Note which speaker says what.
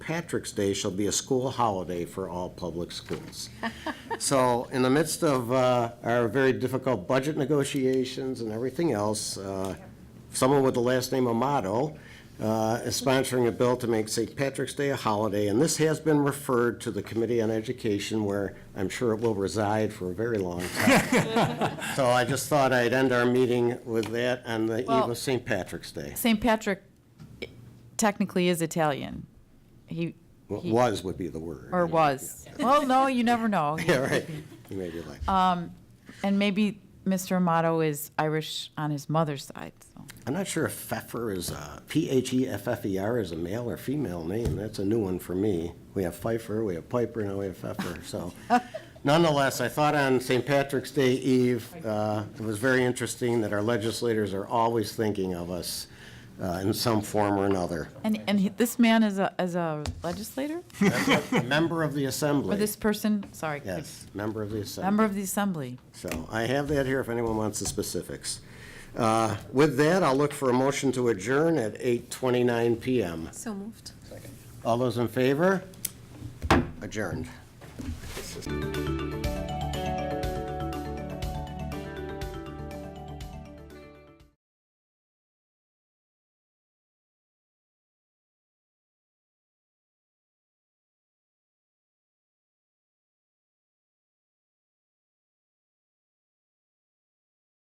Speaker 1: Patrick's Day shall be a school holiday for all public schools. So in the midst of uh, our very difficult budget negotiations and everything else, uh, someone with the last name Amato uh, is sponsoring a bill to make St. Patrick's Day a holiday, and this has been referred to the Committee on Education, where I'm sure it will reside for a very long time. So I just thought I'd end our meeting with that on the eve
Speaker 2: Well-
Speaker 1: of St. Patrick's Day.
Speaker 2: St. Patrick technically is Italian. He,
Speaker 1: Well,
Speaker 2: he-
Speaker 1: Was would be the word.
Speaker 2: or was. Well, no, you never know.
Speaker 1: Yeah, right. You may be like,
Speaker 2: And maybe Mr. Amato is Irish on his mother's side, so.
Speaker 1: I'm not sure if Pfeffer is a, E P-H-E-F-F-E-R is a male or female name. That's a new one for me. We have Pfeiffer, we have Piper, now we have Pfeffer, so. Nonetheless, I thought on St. Patrick's Day Eve, uh, it was very interesting that our legislators are always thinking of us uh, in some form or another.
Speaker 2: And, and he- this man is a, is a legislator?
Speaker 1: A Member of the
Speaker 2: Or
Speaker 1: Assembly.
Speaker 2: this person, sorry.
Speaker 1: Yes, member of the Assembly.
Speaker 2: Member of the Assembly.
Speaker 1: So I have that here if anyone wants the specifics. Uh, With that, I'll look for a motion to adjourn at 8:29 PM.
Speaker 3: So moved.
Speaker 1: All those in favor? Adjourned.